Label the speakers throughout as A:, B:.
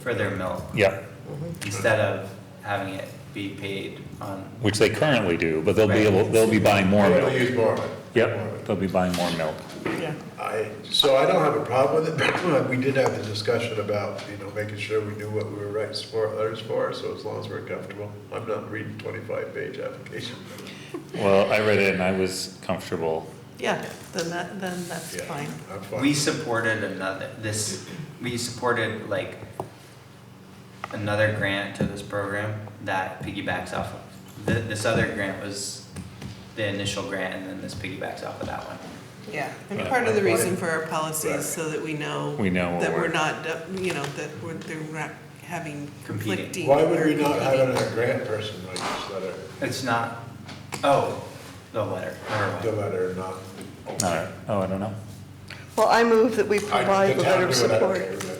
A: for their milk,
B: yeah,
A: instead of having it be paid on,
B: which they currently do, but they'll be able, they'll be buying more
C: They'll
B: milk.
C: use more of it. More
B: Yep,
C: of it.
B: they'll be buying more milk.
D: yeah.
C: I, so I don't have a problem with it, but we did have the discussion about, you know, making sure we knew what we were writing support letters for, so as long as we're comfortable. I'm not reading twenty-five page application.
B: Well, I read it and I was comfortable.
D: Yeah, then that, then that's
C: Yeah,
D: fine.
C: I'm fine.
A: we supported another, this, we supported like another grant to this program that piggybacks off of, th- this other grant was the initial grant, and then this piggybacks off of that one.
D: Yeah, and
B: Yeah.
D: part of the
C: Right.
D: reason for our policy
C: Right.
D: is so that we know.
B: We know what
D: That we're
B: we're-
D: not, uh, you know, that we're, they're not having
A: Competing.
D: conflicting.
C: Why would
D: or
C: we not have
D: competing.
C: a grant person write this letter,
A: It's not, oh, the letter, never mind.
C: the letter or not?
B: All right, oh, I don't know.
E: Well, I move that we
C: I-
E: provide
C: the
E: the
C: town
E: letter of
C: do it, I don't
E: support.
C: care, but-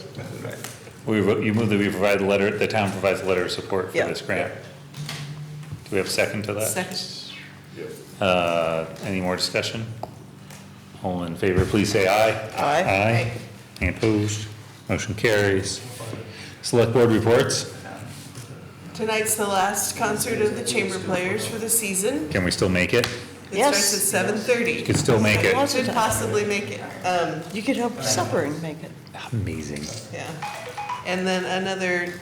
B: We, wrote- you move that we provide the letter, the town provides a letter of support for
E: Yeah.
B: this grant. Do we have a second to that?
D: Second,
C: Yeah.
B: Uh, Any more discussion? All in favor, please say aye.
E: Aye.
B: Aye. Any opposed? Motion carries. Select Board reports.
D: tonight's the last concert of the chamber players for the season.
B: Can we still make it?
D: It
E: Yes.
D: starts at seven thirty.
B: Could still make it.
D: Should possibly make it, um,
E: You could help supper and make it.
B: Amazing.
D: yeah. And then another,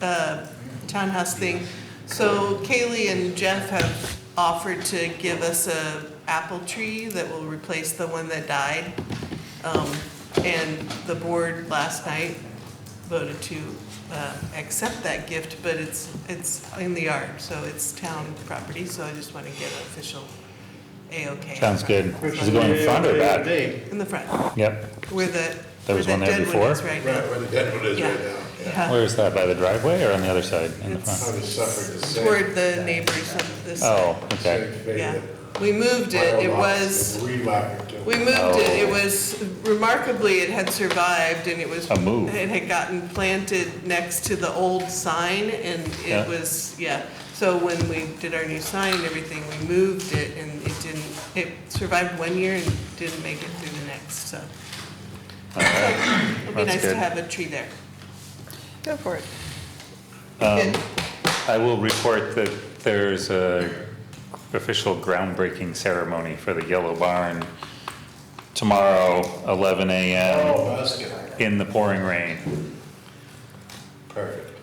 D: uh, townhouse thing. So Kaylee and Jeff have offered to give us a apple tree that will replace the one that died. Um, and the board last night voted to, uh, accept that gift, but it's, it's in the yard, so it's town property, so I just wanna get official A-OK.
B: Sounds good. Is it going in front or back?
D: In the front,
B: Yep.
D: where the,
B: There
D: where
B: was
D: the
B: one there
D: dead
B: before?
D: one is right now.
C: Right, where the dead one is
D: Yeah,
C: right now. yeah.
D: yeah.
B: Where is that? By the driveway or on the other side? In the
D: It's-
B: front?
C: I was suffering the same.
D: Toward the neighbors of this.
B: Oh,
C: same
B: okay.
C: fate
D: Yeah,
C: that
D: we moved it, it
C: Mile Lock
D: was,
C: and Relac and-
D: we moved it, it was remarkably, it had survived and it was.
B: A move.
D: It had gotten planted next to the old sign and
B: Yeah.
D: it was, yeah. So when we did our new sign and everything, we moved it and it didn't, it survived one year and didn't make it through the next, so. It'd be
B: That's
D: nice to
B: good.
D: have a tree there.
E: Go for it.
B: Um, I will report that there's a official groundbreaking ceremony for the Yellow Barn tomorrow, eleven AM,
C: Oh, that's good.
B: in the pouring rain.
C: Perfect.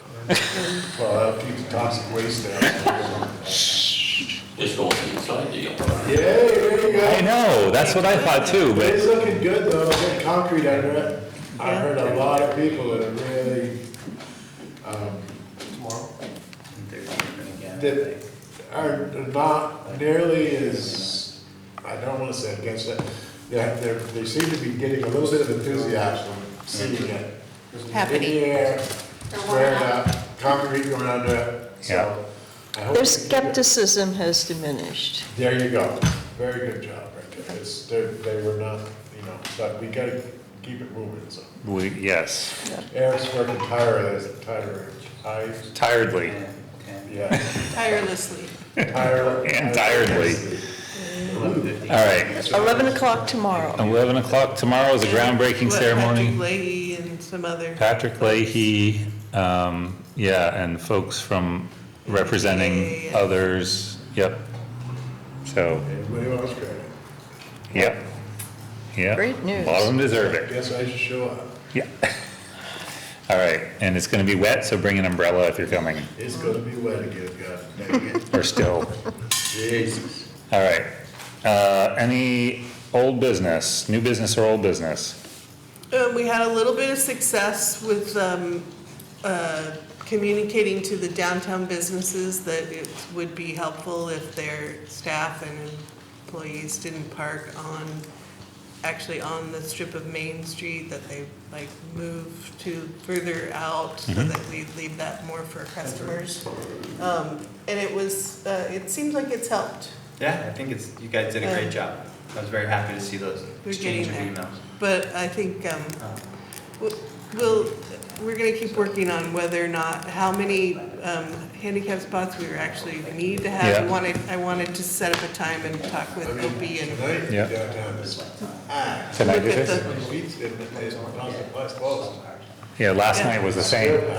C: Well, I'll keep the toxic waste down.
F: Just going inside the yard.
C: Yay, there you
B: I
C: go.
B: know, that's what I thought too, but
C: It's looking good though, good concrete under it. I heard a lot of people that are really, um,
A: And they're doing it again,
C: that
A: like-
C: are not nearly as, I don't wanna say against it. They're, they're, they seem to be getting a little bit of enthusiasm, seeing it.
D: Happening.
C: In the air, squared up, concrete going under it, so. I hope
E: Their
C: they keep it.
E: skepticism has diminished.
C: There you go. Very good job, right there. It's, they, they were not, you know, but we gotta keep it moving, so.
B: we, yes,
C: Eric's working tireless, tireless, I,
B: tiredly.
A: Yeah, okay.
C: yeah,
D: Tirelessly.
C: tireless.
B: And tiredly. All right,
E: Eleven o'clock tomorrow.
B: eleven o'clock tomorrow is a groundbreaking
D: What, Patrick
B: ceremony.
D: Leahy and some other.
B: Patrick Leahy, um, yeah, and folks from representing
D: Yeah.
B: others, yep. So,
C: Everybody wants credit.
B: yep, yep.
E: Great news.
B: A lot of them deserve it,
C: Guess I should show up.
B: yeah. All right, and it's gonna be wet, so bring an umbrella if you're coming,
C: It's gonna be wet again, God dang it.
B: or still.
C: Jesus.
B: All right, uh, any old business, new business or old business?
D: Uh, we had a little bit of success with, um, uh, communicating to the downtown businesses that it would be helpful if their staff and employees didn't park on, actually on the strip of Main Street, that they like move to further out, so
B: Mm-hmm.
D: that we leave that more for customers. Um, and it was, uh, it seems like it's helped.
A: Yeah, I think it's, you guys did a
D: Um,
A: great job. I was very happy to see those
D: We're
A: exchange of
D: getting there.
A: emails.
D: But I think, um,
A: Um,
D: We'll- We'll, we're gonna keep working on whether or not, how many um, handicap spots we actually need to have. I
B: Yeah.
D: wanted, I wanted to set up a time and talk with Opie and look
C: Tonight,
B: Yeah.
C: downtown is, ah,
B: Can I do
D: at
B: this?
D: the,
C: it's, it's, it's, it's, it's, it's,
B: Yeah, last night was the same.